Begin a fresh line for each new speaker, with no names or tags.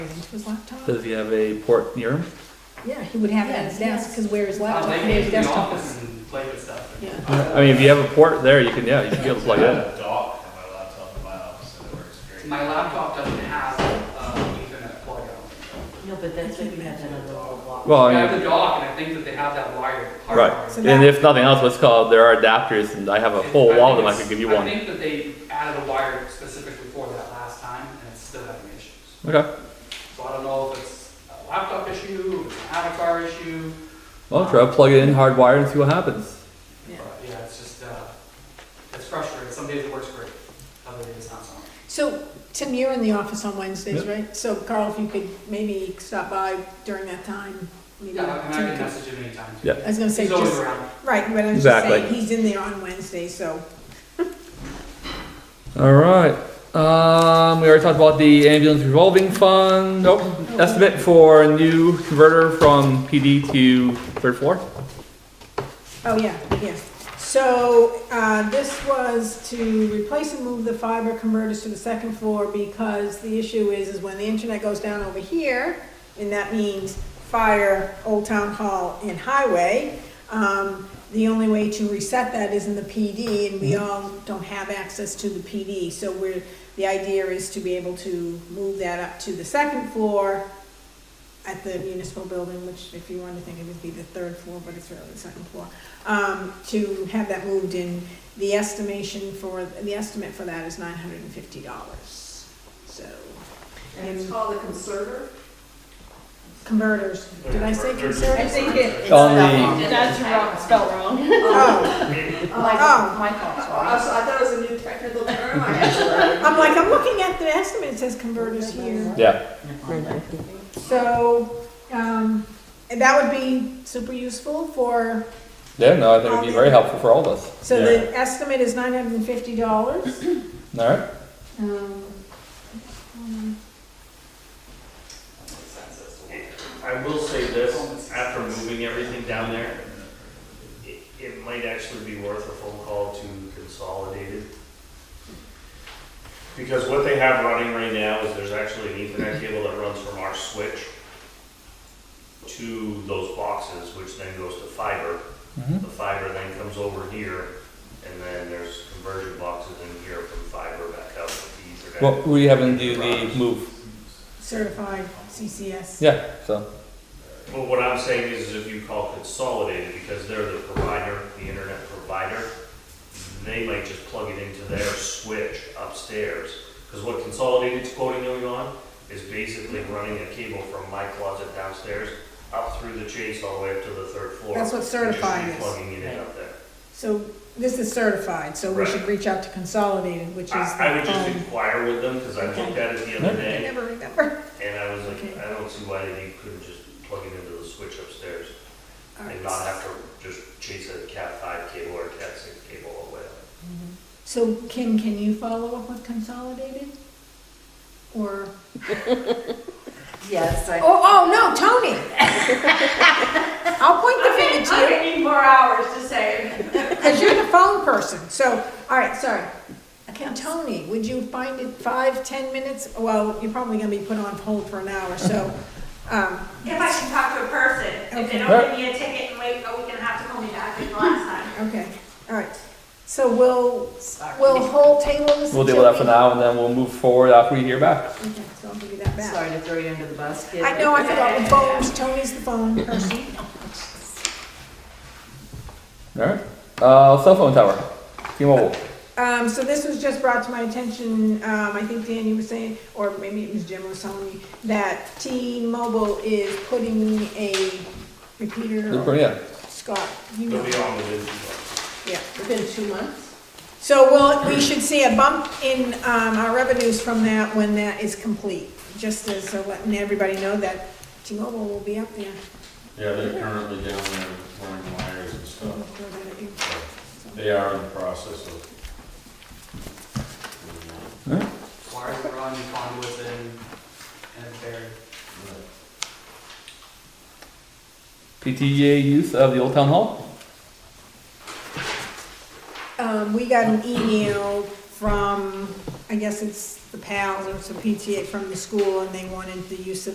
his laptop?
Does he have a port near him?
Yeah, he would have it at his
Yes,
desk, because where his
I'll
laptop,
take
where
it
his
to the
desktop is.
office and play with stuff.
Yeah.
I mean, if you have a port there, you can, yeah, you can be able to plug
I
it in.
have a dock on my laptop in my office and it works great.
My laptop doesn't have uh, Ethernet plug out.
No, but that's what you have another little block.
Well,
I
I mean,
have the dock, and I think that they have that wired.
Oh, Right.
hardwired.
So
and if nothing else, what's called, there are adapters, and I have a whole
I
wall of
think
them I
it's-
could give you
I
one.
think that they added a wire specifically for that last time, and it's still having issues.
Okay,
So I don't know if it's a laptop issue, it's an avatar issue,
well, try to plug it in hardwired and see what happens.
but
Yeah.
yeah, it's just, uh, it's frustrating. Some days it works great, other days not so much.
So, Tim, you're in the office on Wednesdays,
Yep.
right? So Carl, if you could maybe stop by during that time, maybe.
Yeah, and I
Tim
can
could-
message him anytime.
Yeah.
I was gonna say,
He's always
just,
around.
right, but I was just
Exactly.
saying, he's in there on Wednesday, so,
All right, um, we already talked about the ambulance revolving fund, nope, estimate for a new converter from PD to third floor.
oh, yeah, yeah. So, uh, this was to replace and move the fiber converters to the second floor because the issue is, is when the internet goes down over here, and that means fire, Old Town Hall, and highway, um, the only way to reset that is in the PD, and we all don't have access to the PD. So we're, the idea is to be able to move that up to the second floor at the municipal building, which if you wanted to think it would be the third floor, but it's really the second floor, um, to have that moved in. The estimation for, the estimate for that is nine hundred and fifty dollars, so.
And it's called a conserver?
Converters, did I say
Converters.
conservers?
I think it, it's
On
spelled
the-
wrong. That's wrong, spelled wrong.
Oh,
My,
Oh.
my fault,
Oh,
sorry.
so I thought it was a new technical term. I actually-
I'm like, I'm looking at the estimate, it says converters here.
Yeah,
So, um, and that would be super useful for,
yeah, no, I think it'd be very helpful for all of us.
so the estimate is nine hundred and fifty dollars.
All right,
um,
I will say this, after moving everything down there, it, it might actually be worth a phone call to Consolidated. Because what they have running right now is there's actually an ethernet cable that runs from our switch to those boxes, which then goes to fiber.
Mhm.
The fiber then comes over here, and then there's conversion boxes in here from fiber back out to the
well,
ethernet.
we haven't do the move,
Certified CCS.
yeah, so,
Well, what I'm saying is, is if you call Consolidated, because they're the provider, the internet provider, they might just plug it into their switch upstairs. Because what Consolidated's quoting you on is basically running a cable from my closet downstairs up through the chase all the way up to the third floor.
That's what certified
And
is.
just plugging it in up there.
So this is certified, so we should reach out to Consolidated, which is um,
I, I would
the
just
phone.
inquire with them, because I looked at it the other
I
day,
never remember.
and I was like,
Okay.
I don't see why they couldn't just plug it into the switch upstairs.
All
and
right.
not have to just chase a cat five cable or cat six cable all the way up.
So Kim, can you follow up with Consolidated? Or,
Yes, I.
oh, oh, no, Tony! I'll point the finger to you.
I didn't need more hours to say it.
Because you're the phone person, so, all right, sorry. Okay, Tony, would you find it five, ten minutes? Well, you're probably gonna be put on hold for an hour, so, um,
If I can talk to a person, if they don't give me a ticket and wait a week and a half to call me back like last time.
okay, all right. So we'll,
Sorry.
we'll hold table this.
we'll deal with that for
until
now, and then we'll move forward after we hear back.
we- Okay, so I'll give you that back.
Sorry to throw you under the bus, kid.
I know, I forgot the phones, Tony's the phone person.
All right, uh, cell phone tower, T-Mobile.
Um, so this was just brought to my attention, um, I think Dan, you were saying, or maybe it was Jim was telling me, that T-Mobile is putting a repeater or
Yeah,
Scott, you
They'll
know,
be on within two months.
yeah.
Within two months?
So we'll, we should see a bump in, um, our revenues from that when that is complete, just as uh, letting everybody know that T-Mobile will be up there.
Yeah, they're currently down there running wires and
We'll
stuff.
throw that at you.
They are in the process of.
Wires are on, conduits in, and it's buried.
PTA use of the old town hall.
Um, we got an email from, I guess it's the PALs or some PTA from the school, and they wanted the use of